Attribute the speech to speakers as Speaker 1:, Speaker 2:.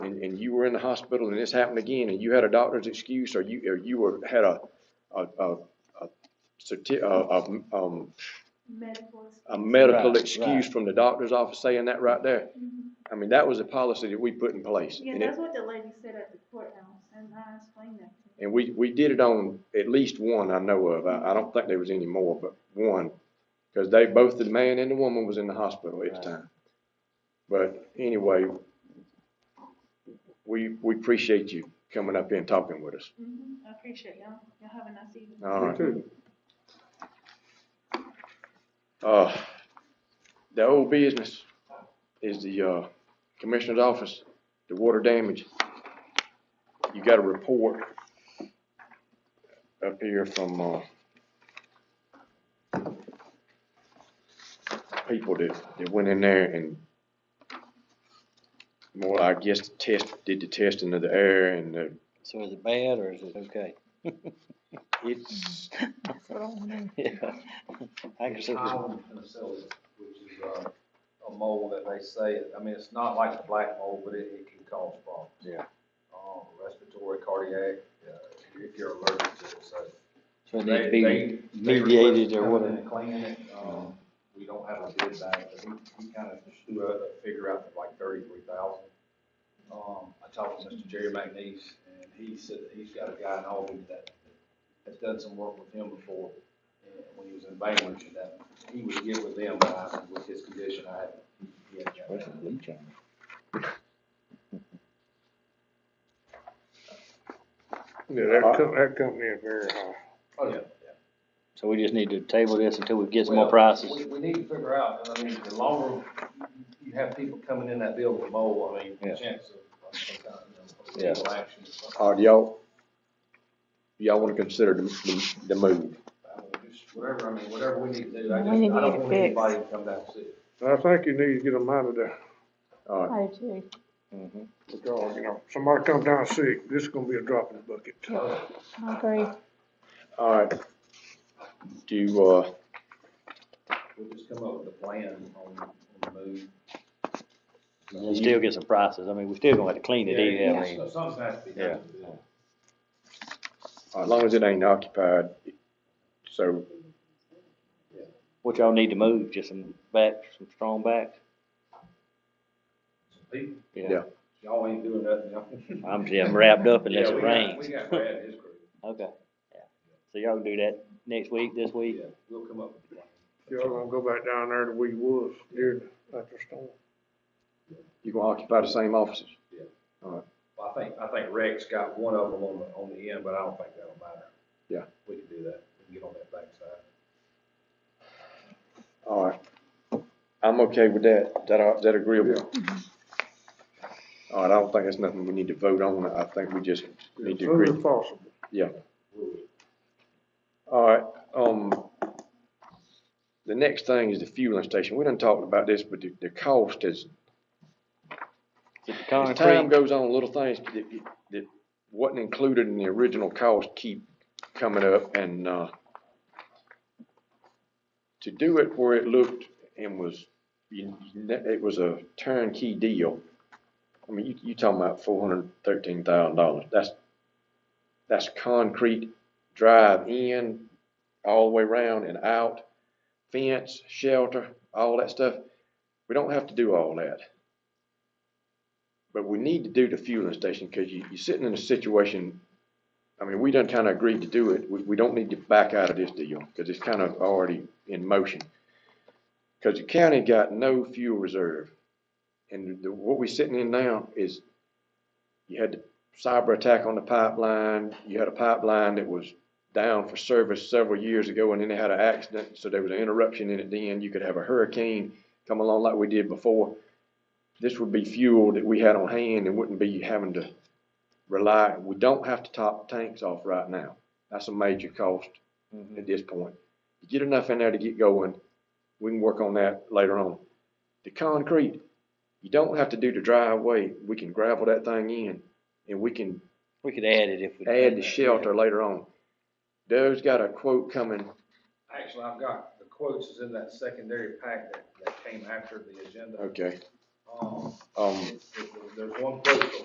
Speaker 1: you were in the hospital and this happened again, and you had a doctor's excuse, or you, or you were, had a, a, a, a certi- a, a, um,
Speaker 2: medical.
Speaker 1: a medical
Speaker 3: Right,
Speaker 1: excuse
Speaker 3: right.
Speaker 1: from the doctor's office saying that right there.
Speaker 2: Mhm.
Speaker 1: I mean, that was a policy that we put in place.
Speaker 2: Yeah,
Speaker 1: and it-
Speaker 2: that's what the lady said at the courthouse, and I explained that to her.
Speaker 1: And we, we did it on at least one I know of. I, I don't think there was any more, but one. Cause they, both the man and the woman was in the hospital at the
Speaker 3: Right.
Speaker 1: time. But anyway, we, we appreciate you coming up here and talking with us.
Speaker 2: Mhm. I appreciate y'all, y'all have a nice evening.
Speaker 1: All right. Uh, the old business is the, uh, commissioner's office, the water damage. You got a report up here from, uh, people that, that went in there and more, I guess, test, did the testing of the air and the,
Speaker 3: So is it bad or is it okay?
Speaker 1: it's,
Speaker 3: Yeah. I can see this-
Speaker 4: Column penicillium, which is, uh, a mold that they say, it- I mean, it's not like the black mold, but it, it can cause problems.
Speaker 3: Yeah.
Speaker 4: Um, respiratory, cardiac, uh, if you're allergic to it, so.
Speaker 3: so it
Speaker 4: they-
Speaker 3: needs to be
Speaker 4: they- they
Speaker 3: mediated
Speaker 4: requested
Speaker 3: or
Speaker 4: coming in
Speaker 3: whatever.
Speaker 4: and Cleaning it, um, we don't have a bid back, but he, he kind of just threw out a figure out of like thirty-three thousand. Um, I talked to Mr. Jerry McNeese, and he said that he's got a guy in Albany that has done some work with him before, and when he was in Bainbridge, and that, he would get with them, but I, with his condition, I haven't. he hadn't got
Speaker 3: Where's
Speaker 4: that.
Speaker 3: the bleach on it?
Speaker 5: Yeah, that co- that company uh, is very high.
Speaker 4: Oh, yeah, yeah.
Speaker 3: So we just need to table this until we get some more
Speaker 4: Well,
Speaker 3: prices.
Speaker 4: We, we need to figure out, and I mean, the longer you have people coming in that building with mold, I mean,
Speaker 3: Yeah.
Speaker 4: the chance of, of some kind of, you
Speaker 3: Yeah.
Speaker 4: know, legal action. or something.
Speaker 1: uh, do y'all, y'all wanna consider the, the, the move?
Speaker 4: I mean, just Whatever, I mean, whatever we need to do, I
Speaker 6: We
Speaker 4: just, I
Speaker 6: need to
Speaker 4: don't
Speaker 6: get
Speaker 4: want
Speaker 6: it
Speaker 4: anybody to come down and see.
Speaker 5: I think you need to get them out of there,
Speaker 1: All right,
Speaker 6: I do.
Speaker 3: Mhm.
Speaker 5: because, you know, somebody comes down sick, this is gonna be a drop in the bucket.
Speaker 6: I agree.
Speaker 1: all right. Do, uh,
Speaker 4: We'll just come up with a plan on, on the move.
Speaker 3: And still get some prices. I mean, we still gonna have to clean it
Speaker 4: Yeah,
Speaker 3: either, I
Speaker 4: it's-
Speaker 3: mean.
Speaker 4: Something has to be done. to do
Speaker 1: As long as it ain't occupied, so,
Speaker 3: What y'all need to move, just some backs, some strong backs?
Speaker 4: it. People,
Speaker 1: Yeah.
Speaker 4: Y'all ain't doing nothing, y'all.
Speaker 3: I'm, yeah, I'm wrapped up unless
Speaker 4: Yeah,
Speaker 3: it
Speaker 4: we got-
Speaker 3: rains.
Speaker 4: We got Brad and his crew,
Speaker 3: Okay, yeah. So y'all can do that next week, this week?
Speaker 4: yeah, we'll come up with a plan.
Speaker 5: Y'all gonna go back down there to where you was during, after storm.
Speaker 1: you gonna occupy the same offices?
Speaker 4: Well, I think, I think Rex got one of them on the, on the end, but I don't think that'll matter.
Speaker 1: Yeah.
Speaker 4: We can do that, we can get on that backside.
Speaker 1: All right. I'm okay with that. Is that, all- is that agreeable? All right, I don't think that's nothing we need to vote on. I think we just need to
Speaker 5: Soon
Speaker 1: agree.
Speaker 5: as possible.
Speaker 1: All right, um, the next thing is the fueling station. We done talked about this, but the, the cost is,
Speaker 3: Is it the
Speaker 1: as time
Speaker 3: concrete?
Speaker 1: goes on, little things that, that wasn't included in the original cost keep coming up and, uh, to do it where it looked and was, you, it was a turnkey deal. I mean, you, you talking about four hundred thirteen thousand dollars. That's, that's concrete drive in, all the way around and out, fence, shelter, all that stuff. We don't have to do all that. But we need to do the fueling station, cause you, you're sitting in a situation, I mean, we done kinda agreed to do it, we, we don't need to back out of this deal, cause it's kind of already in motion. Cause the county got no fuel reserve, and the, what we sitting in now is, you had the cyber attack on the pipeline, you had a pipeline that was down for service several years ago, and then they had an accident, so there was an interruption in it then, you could have a hurricane come along like we did before this would be fuel that we had on hand and wouldn't be having to rely, we don't have to top tanks off right now. That's a major cost
Speaker 3: Mhm.
Speaker 1: at this point. You get enough in there to get going, we can work on that later on. The concrete, you don't have to do the driveway, we can gravel that thing in and we can
Speaker 3: We could add it if we.
Speaker 1: add the shelter later on. Doug's got a quote coming,
Speaker 4: Actually, I've got, the quotes is in that secondary pack that, that came after the agenda.
Speaker 1: okay,
Speaker 4: Um,
Speaker 1: um.
Speaker 4: it's- it- there's one quote from